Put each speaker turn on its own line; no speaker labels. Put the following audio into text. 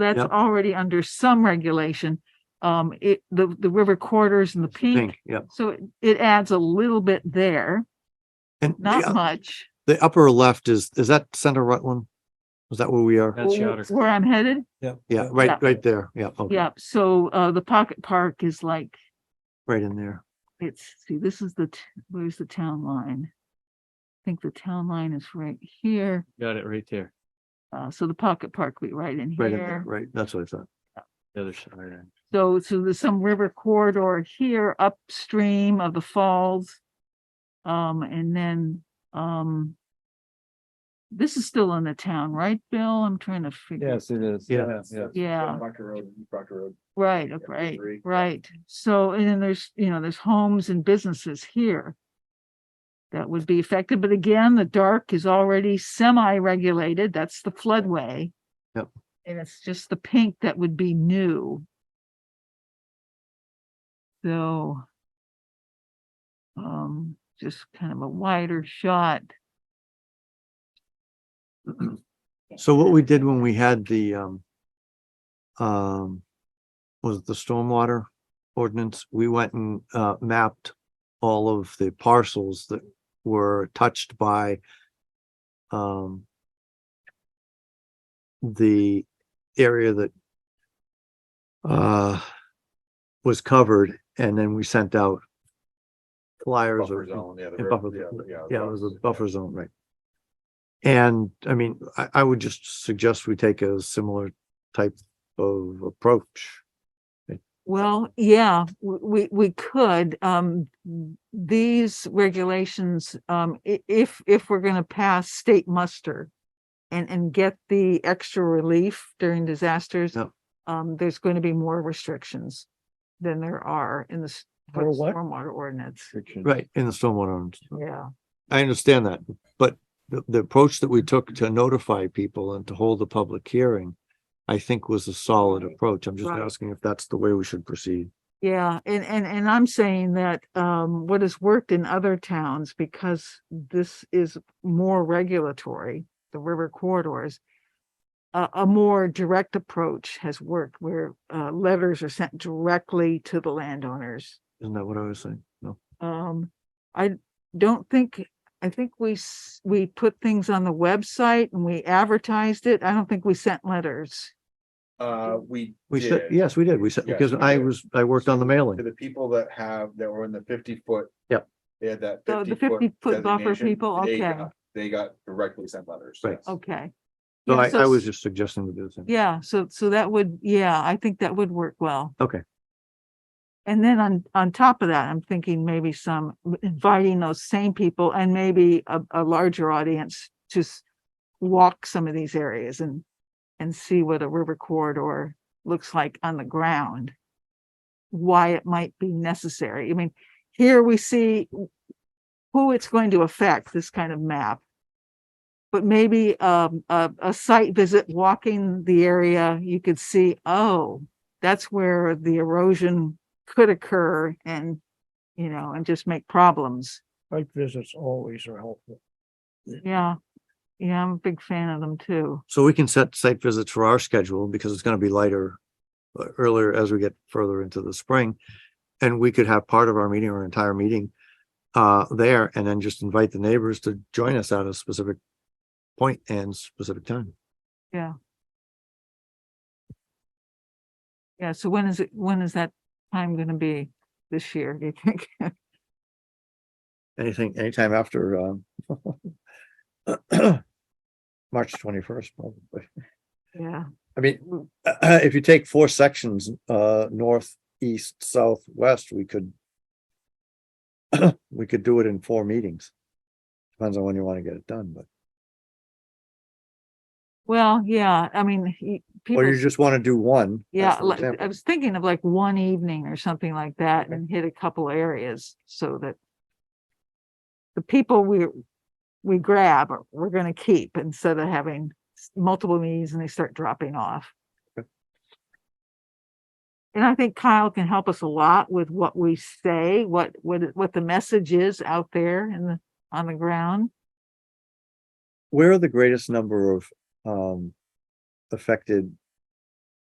That's
Yep.
already under some regulation. Um, it, the, the river corridors and the
Pink,
peak.
yep.
So it- it adds a little bit there,
And
not
the, uh,
much.
the upper left is, is that Center Rutland? Is that where we are?
That's
Wh-
Yoder.
Where I'm headed.
Yeah,
Yeah.
right, right there. Yeah. okay,
Yeah. So, uh, the pocket park is like,
Right in there.
it's, see, this is the, t- where's the town line? I think the town line is right here.
Got it right there,
Uh, so the pocket park will be right in
Right in there.
here.
Right. That's what I thought.
the other side.
So, so there's some river corridor here upstream of the falls. Um, and then, um, this is still in the town, right, Bill? I'm trying to figure.
it is.
Yeah.
yeah.
Yeah,
Proctor Road, East Proctor Road.
right,
Yeah,
right,
agree.
right. So, and then there's, you know, there's homes and businesses here that would be affected. But again, the dark is already semi-regulated. That's the floodway.
Yep.
And it's just the pink that would be new. So um, just kind of a wider shot.
So what we did when we had the, um, um, was it the stormwater ordinance? We went and, uh, mapped all of the parcels that were touched by, um, the area that, uh, was covered and then we sent out flyers
Buffer
or
zone, yeah. the
and
road,
buffer
yeah,
zone,
yeah,
yeah, it was a
yeah.
buffer zone, right? And I mean, I, I would just suggest we take a similar type of approach.
Well, yeah, w- we, we could, um, these regulations, um, i- if, if we're gonna pass state muster and, and get the extra relief during disasters,
Yep.
um, there's going to be more restrictions than there are in the s- for
For
the
what?
stormwater ordinance.
Right. In the stormwater, ordinance.
Yeah,
I understand that, but the, the approach that we took to notify people and to hold the public hearing, I think was a solid approach. I'm just
Right.
asking if that's the way we should proceed.
yeah, and, and, and I'm saying that, um, what has worked in other towns, because this is more regulatory, the river corridors, a, a more direct approach has worked where, uh, letters are sent directly to the landowners.
Isn't that what I was saying? No.
Um, I don't think, I think we, s- we put things on the website and we advertised it. I don't think we sent letters.
Uh, we.
We said,
did.
yes, we did. We said,
Yes,
because
we
I
did.
was, I worked on the mailing.
To the people that have, that were in the fifty foot.
Yep.
They had that.
Oh, the 50-foot buffer
designation,
people,
they
okay.
got- They got directly sent letters.
Right.
yes.
Okay.
So
Yeah,
I, I
s-
was just suggesting we do the same.
Yeah, so, so that would, yeah, I think that would work well.
Okay.
And then on, on top of that, I'm thinking maybe some inviting those same people and maybe a, a larger audience to s- walk some of these areas and, and see what a river corridor looks like on the ground. Why it might be necessary. I mean, here we see who it's going to affect, this kind of map but maybe um, a, a site visit, walking the area, you could see, oh, that's where the erosion could occur and, you know, and just make problems.
Site visits always are helpful.
Yeah. Yeah, I'm a big fan of them too.
So we can set site visits for our schedule because it's gonna be lighter uh, earlier as we get further into the spring. And we could have part of our meeting or entire meeting uh there and then just invite the neighbors to join us at a specific point and specific time.
Yeah, so when is it, when is that time gonna be this year, do you think?
Anything, anytime after um March twenty-first, probably.
Yeah,
I mean, if you take four sections, uh, north, east, south, west, we could. We could do it in four meetings. Depends on when you want to get it done, but,
well, yeah, I mean, y-
or
people,
you just want to do one.
yeah,
as an
like, I
example.
was thinking of like one evening or something like that and hit a couple areas so that the people we, we grab, are- we're gonna keep instead of having s- multiple meetings and they start dropping off. And I think Kyle can help us a lot with what we say, what, what, it- what the message is out there in the, on the ground.
Where are the greatest number of, um, affected